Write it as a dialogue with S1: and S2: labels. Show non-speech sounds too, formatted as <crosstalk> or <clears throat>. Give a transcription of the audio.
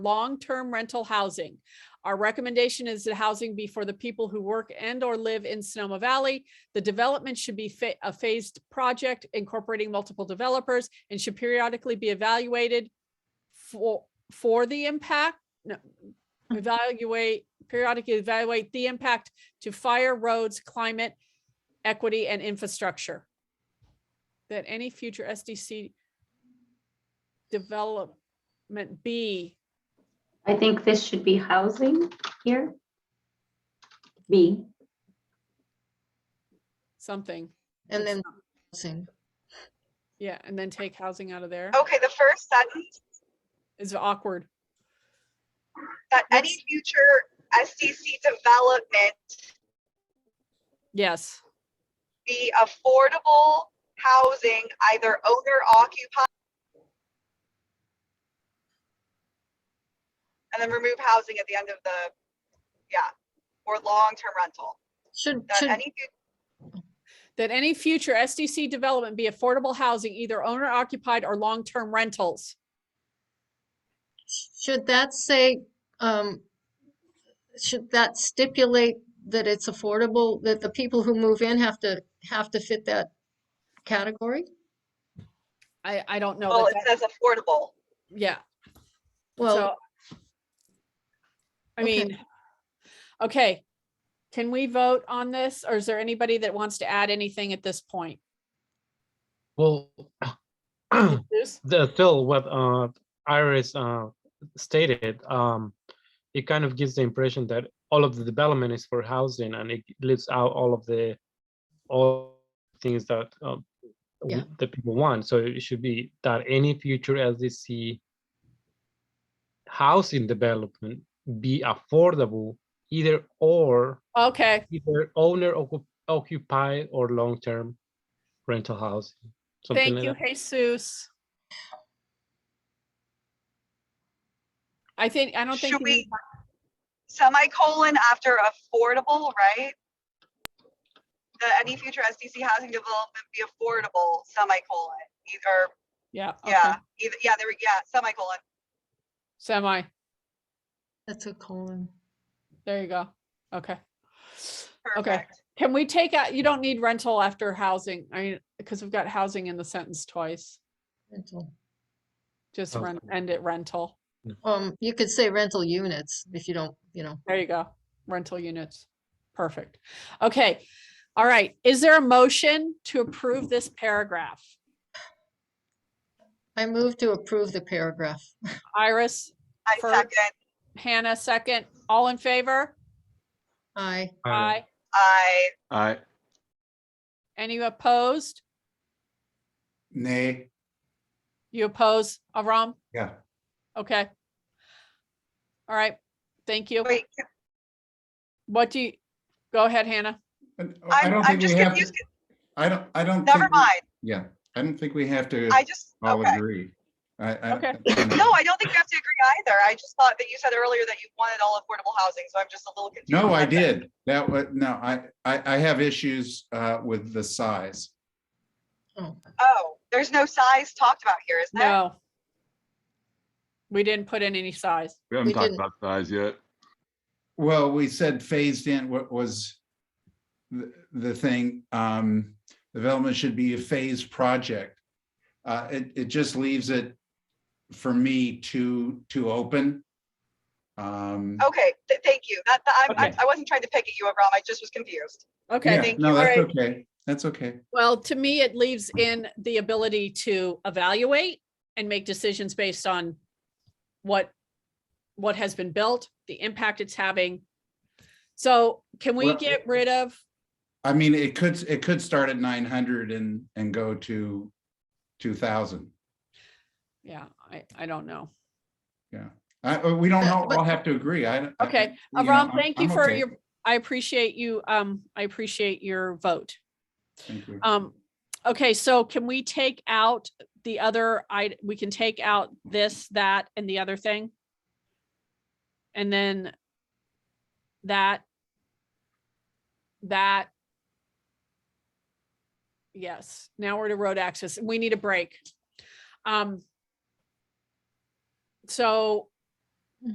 S1: long-term rental housing. Our recommendation is that housing be for the people who work and or live in Sonoma Valley. The development should be fa- a phased project incorporating multiple developers and should periodically be evaluated for, for the impact, no, evaluate, periodically evaluate the impact to fire, roads, climate, equity, and infrastructure. That any future SDC development be
S2: I think this should be housing here. B,
S1: something.
S3: And
S1: That's
S3: then housing.
S1: Yeah, and then take housing out of there
S4: Okay, the first sentence,
S1: is awkward.
S4: that any future SDC development
S1: Yes,
S4: be affordable housing, either owner occupied. And then remove housing at the end of the, yeah, or long-term rental.
S3: Should,
S4: That
S3: should,
S4: any, fu-
S1: that any future SDC development be affordable housing, either owner occupied or long-term rentals.
S3: should that say, um, should that stipulate that it's affordable, that the people who move in have to, have to fit that category?
S1: I, I don't know.
S4: well,
S1: that
S4: it says affordable.
S1: that- Yeah.
S3: Well,
S1: So, I
S3: okay.
S1: mean, okay, can we vote on this or is there anybody that wants to add anything at this point?
S5: Well, <clears throat> Hmm.
S1: Bruce?
S5: the- still what uh, Iris uh, stated, um, it kind of gives the impression that all of the development is for housing and it leaves out all of the, all things that um,
S3: Yeah.
S5: the people want. So it should be that any future LDC housing development be affordable either or,
S1: Okay,
S5: either owner occup- occupied or long-term rental housing. something
S1: thank
S5: like
S1: you,
S5: that.
S1: Jesus. I think, I don't think.
S4: Should
S1: you need-
S4: we semicolon after affordable, right? That any future SDC housing development be affordable, semicolon, either
S1: Yeah, okay,
S4: Yeah, either, yeah, there, we- yeah, semicolon.
S1: semi,
S3: that's a colon.
S1: there you go. Okay. Okay,
S4: Perfect.
S1: can we take out, you don't need rental after housing, I mean, because we've got housing in the sentence twice.
S3: rental.
S1: Just
S5: Okay.
S1: run, end it rental.
S3: Um, you could say rental units if you don't, you know,
S1: There you go. Rental units. Perfect. Okay. All right. Is there a motion to approve this paragraph?
S3: I move to approve the paragraph.
S1: Iris,
S4: I
S1: for-
S4: second,
S1: Hannah, second. All in favor?
S3: I,
S5: Uh,
S4: I,
S6: Aye.
S1: Any opposed?
S6: Nay.
S1: You oppose, Avram?
S6: Yeah.
S1: Okay. All right. Thank you.
S4: wait, can-
S1: What do you, go ahead, Hannah.
S6: And I
S4: I'm,
S6: don't
S4: I'm
S6: think we
S4: just
S6: have,
S4: confused.
S6: I don't, I don't.
S4: Never
S6: think we-
S4: mind.
S6: Yeah, I don't think we have to
S4: I just,
S6: all
S4: okay.
S6: agree. I, I.
S1: Okay.
S6: I don't know.
S4: No, I don't think you have to agree either. I just thought that you said earlier that you wanted all affordable housing, so I'm just a little confused.
S6: No, I
S4: That's it.
S6: did. That was, no, I, I, I have issues uh, with the size.
S3: oh,
S4: Oh, there's no size talked about here, is there?
S1: No. We didn't put in any size.
S7: We
S3: We
S7: haven't talked
S3: didn't.
S7: about size yet.
S6: Well, we said phased in, what was the, the thing, um, development should be a phased project. Uh, it, it just leaves it for me too, too open. Um,
S4: Okay, th- thank you. That, that- I'm- I,
S5: Okay.
S4: I wasn't trying to pick at you, Avram. I just was confused.
S1: Okay.
S6: yeah,
S4: thank
S6: No,
S4: you.
S6: that's
S4: Alright.
S6: okay. That's okay.
S1: Well, to me, it leaves in the ability to evaluate and make decisions based on what, what has been built, the impact it's having. So can we
S6: Well-
S1: get rid of,
S6: I mean, it could, it could start at nine hundred and, and go to two thousand.
S1: yeah, I, I don't know.
S6: I, uh, we don't all
S3: But-
S6: all have to agree. I. I-
S1: Okay,
S6: you know,
S1: Avram,
S6: I'm-
S1: thank you
S6: I'm
S1: for
S6: okay.
S1: your, I appreciate you, um, I appreciate your vote.
S6: Thank you.
S1: Um, okay, so can we take out the other, I, we can take out this, that, and the other thing? And then that, that. Yes, now we're to road access. We need a break. Um. So